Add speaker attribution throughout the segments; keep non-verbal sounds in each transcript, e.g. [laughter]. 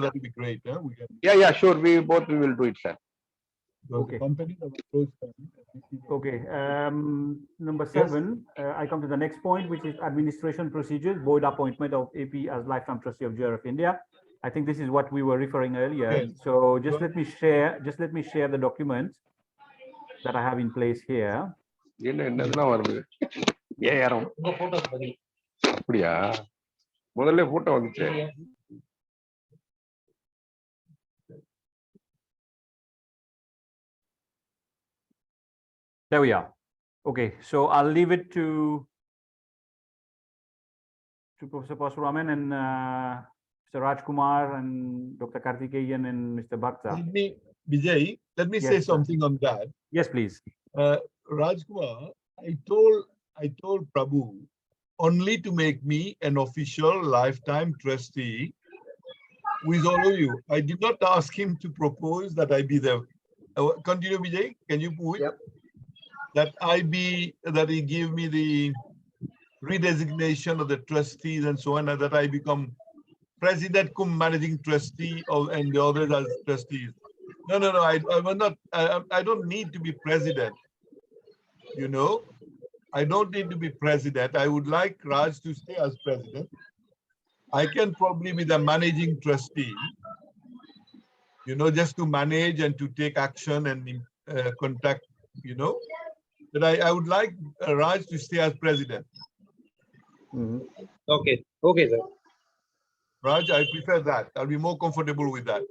Speaker 1: that would be great, yeah, we can.
Speaker 2: Yeah, yeah, sure. We both we will do it, sir.
Speaker 1: because the
Speaker 3: Okay.
Speaker 1: Companies have approached them. and I see that-
Speaker 3: Okay, um, number
Speaker 1: Yes.
Speaker 3: seven, uh, I come to the next point, which is administration procedures, board appointment of AP as lifetime trustee of GRF India. I think this is what we were referring earlier.
Speaker 1: Yes.
Speaker 3: So just
Speaker 1: Go-
Speaker 3: let me share, just let me share the document that I have in place here.
Speaker 2: இல்ல என்னதுலாம் வருது ஏஆரம் அப்படியா முதல்ல photo வந்துச்சு
Speaker 3: There we are. Okay, so I'll leave it to to Professor Pasuraman and uh, Mr. Raj Kumar and Dr. Karthikeyan and Mr. Bhakta.
Speaker 1: Let me, Vijay, let me say
Speaker 3: Yes, sir.
Speaker 1: something on that.
Speaker 3: Yes, please.
Speaker 1: Uh, Rajkumar, I told, I told Prabhu only to make me an official lifetime trustee with all of you. I did not ask him to propose that I be the, Uh, continue Vijay, can you move it?
Speaker 4: Yep.
Speaker 1: That I be, that he give me the redesignation of the trustees and so on, and that I become president cum managing trustee of, and the others as trustees. No, no, no, I, I will not, I, I- I don't need to be president. You know, I don't need to be president. I would like Raj to stay as president. I can probably be the managing trustee. You know, just to manage and to take action and uh, contact, you know. But I, I would like uh, Raj to stay as president.
Speaker 3: Mhm.
Speaker 4: Okay, okay, sir.
Speaker 1: Raj, I prefer that. I'll be more comfortable with that.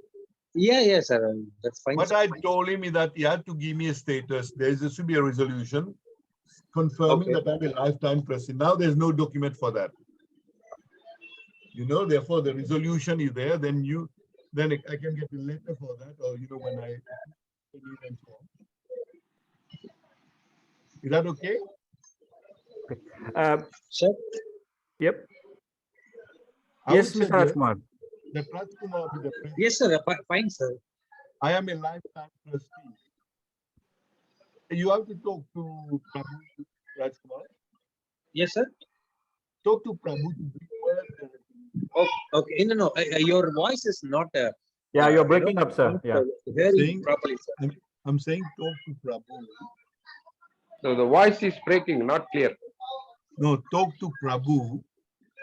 Speaker 4: Yeah, yeah, sir. um, That's fine.
Speaker 1: What
Speaker 4: sir.
Speaker 1: I told him is that he had to give me a status. There is, there should be a resolution confirming
Speaker 4: Okay.
Speaker 1: that I'm a lifetime trustee. Now there's no document for that. You know, therefore the resolution is there, then you, then I can get a letter for that, or you know, when I. and so on. Is that okay?
Speaker 3: Uh,
Speaker 4: Sir,
Speaker 3: Yep.
Speaker 1: I
Speaker 3: Yes,
Speaker 1: would
Speaker 3: Mr.
Speaker 1: suggest
Speaker 3: Rajkumar.
Speaker 1: The trust will be the president.
Speaker 4: yes, sir. fi- Fine, sir.
Speaker 1: I am a lifetime trustee. You have to talk to Prabhu Rajkumar.
Speaker 4: Yes, sir.
Speaker 1: Talk to Prabhu to be aware of everything.
Speaker 4: Okay, okay. No, no, uh, uh, your voice is not. uh,
Speaker 3: Yeah, you're
Speaker 4: uh,
Speaker 3: breaking
Speaker 4: not-
Speaker 3: up, sir.
Speaker 4: not,
Speaker 3: Yeah.
Speaker 4: uh, Hearing
Speaker 1: Saying-
Speaker 4: properly, sir.
Speaker 1: I'm saying talk to Prabhu.
Speaker 2: So the voice is breaking, not clear.
Speaker 1: No, talk to Prabhu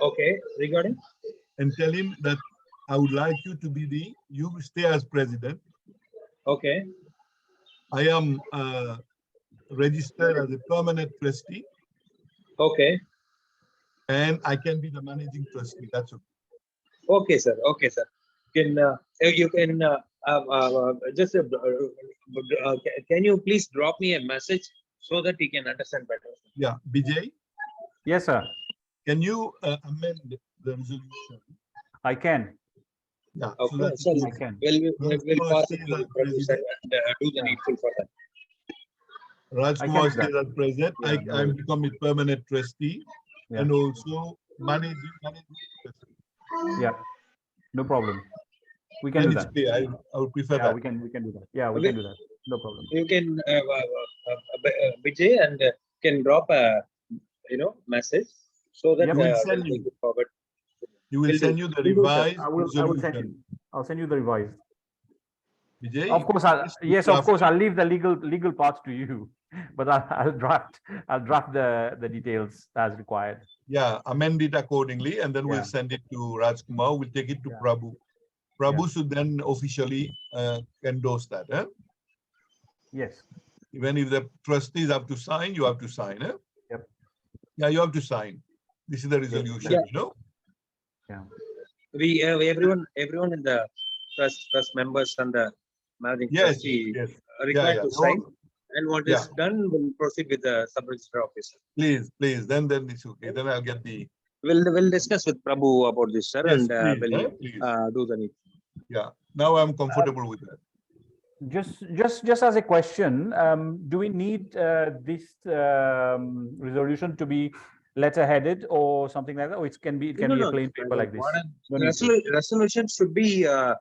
Speaker 4: Okay, regarding,
Speaker 1: and tell him that I would like you to be the, you stay as president.
Speaker 4: okay,
Speaker 1: I am uh, registered as a permanent trustee
Speaker 4: okay,
Speaker 1: and I can be the managing trustee. That's okay.
Speaker 4: okay, sir. Okay, sir. Can, uh, uh, you can, uh, uh, uh, just, uh, uh, ca- can you please drop me a message so that we can understand better?
Speaker 1: Yeah, Vijay,
Speaker 3: Yes, sir.
Speaker 1: can you uh, amend the resolution?
Speaker 3: I can.
Speaker 1: Yeah. so
Speaker 4: Okay,
Speaker 1: that it
Speaker 4: so
Speaker 1: is-
Speaker 3: I can.
Speaker 4: Well, we-
Speaker 1: Yes,
Speaker 4: we'll
Speaker 1: sir,
Speaker 4: pass
Speaker 1: stay
Speaker 4: it to
Speaker 1: like
Speaker 4: Prabhu, sir, and uh, do the
Speaker 3: Yeah.
Speaker 4: needful for that.
Speaker 1: Rajkumar
Speaker 3: do that.
Speaker 1: stays as president. I,
Speaker 3: Yeah,
Speaker 1: I
Speaker 3: no.
Speaker 1: become a permanent trustee
Speaker 3: Yeah.
Speaker 1: and also managing, managing. trustee.
Speaker 3: Yeah. No problem. We can
Speaker 1: Then
Speaker 3: do
Speaker 1: it's
Speaker 3: that.
Speaker 1: clear. I, I would prefer
Speaker 3: Yeah,
Speaker 1: that.
Speaker 3: we can, we can do that. Yeah, we
Speaker 4: Okay.
Speaker 3: can do that. No problem.
Speaker 4: you can uh, uh, uh, uh, uh, Vijay and uh, can drop a you know message so that
Speaker 3: Yeah,
Speaker 4: uh,
Speaker 1: we'll
Speaker 4: we'll
Speaker 1: send
Speaker 4: take it forward.
Speaker 1: He will
Speaker 4: Will do.
Speaker 1: send you the
Speaker 3: We will, sir.
Speaker 1: revised
Speaker 3: I will, I will send
Speaker 1: resolution.
Speaker 3: you. I'll send you the revised.
Speaker 1: Vijay,
Speaker 3: Of course, I'll,
Speaker 1: Yes,
Speaker 3: yes, of
Speaker 1: draft.
Speaker 3: course, I'll leave the legal, legal parts to you. [laughs] But I'll, I'll draft, I'll draft the, the details as required.
Speaker 1: yeah, amend it accordingly and then we'll send it to Rajkumar. We'll take it to
Speaker 3: Yeah.
Speaker 1: Prabhu. Prabhu should then officially uh, endorse that, eh?
Speaker 3: Yes.
Speaker 1: Even if the trustees have to sign, you have to sign, eh?
Speaker 3: Yep.
Speaker 1: Yeah, you have to sign. This is the resolution,
Speaker 4: Yeah.
Speaker 1: you know?
Speaker 4: We uh, everyone everyone in the trust trust members and the managing
Speaker 1: Yes,
Speaker 4: trustee
Speaker 1: yes. Yeah,
Speaker 4: are required
Speaker 1: yeah.
Speaker 4: to
Speaker 1: No,
Speaker 4: sign. And what is done, we'll proceed with the sub register officer.
Speaker 1: Please, please, then, then it's okay. Then I'll get the.
Speaker 4: We'll we'll discuss with Prabhu about this, sir,
Speaker 1: Yes,
Speaker 4: and uh,
Speaker 1: please, eh,
Speaker 4: we'll
Speaker 1: please.
Speaker 4: uh, do the need.
Speaker 1: Yeah, now I'm comfortable with that.
Speaker 3: Just, just, just as a question, um, do we need, uh, this, um, resolution to be letter headed or something like that? Or it can be, it can
Speaker 4: No,
Speaker 3: be a
Speaker 4: no,
Speaker 3: plain paper like this?
Speaker 4: what-
Speaker 3: No need to.
Speaker 4: Resolu- Resolution should be uh,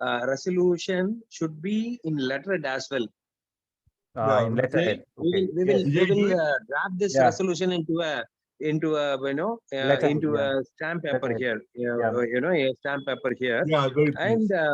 Speaker 4: uh, resolution should be in letterhead as well.
Speaker 3: Uh,
Speaker 1: Yeah,
Speaker 3: in
Speaker 1: we-
Speaker 3: letterhead.
Speaker 4: We
Speaker 3: Okay.
Speaker 4: will, we will,
Speaker 3: Yes.
Speaker 4: we
Speaker 1: Vijay, do
Speaker 4: will
Speaker 1: it.
Speaker 4: uh, wrap this
Speaker 3: Yeah.
Speaker 4: resolution into a, into a, you know, uh,
Speaker 3: Letterhead,
Speaker 4: into
Speaker 3: yeah.
Speaker 4: a stamp paper
Speaker 3: Letterhead.
Speaker 4: here, uh, you
Speaker 3: Yeah.
Speaker 4: know, you know, a stamp paper here.
Speaker 1: Yeah, very pleased.
Speaker 4: And uh,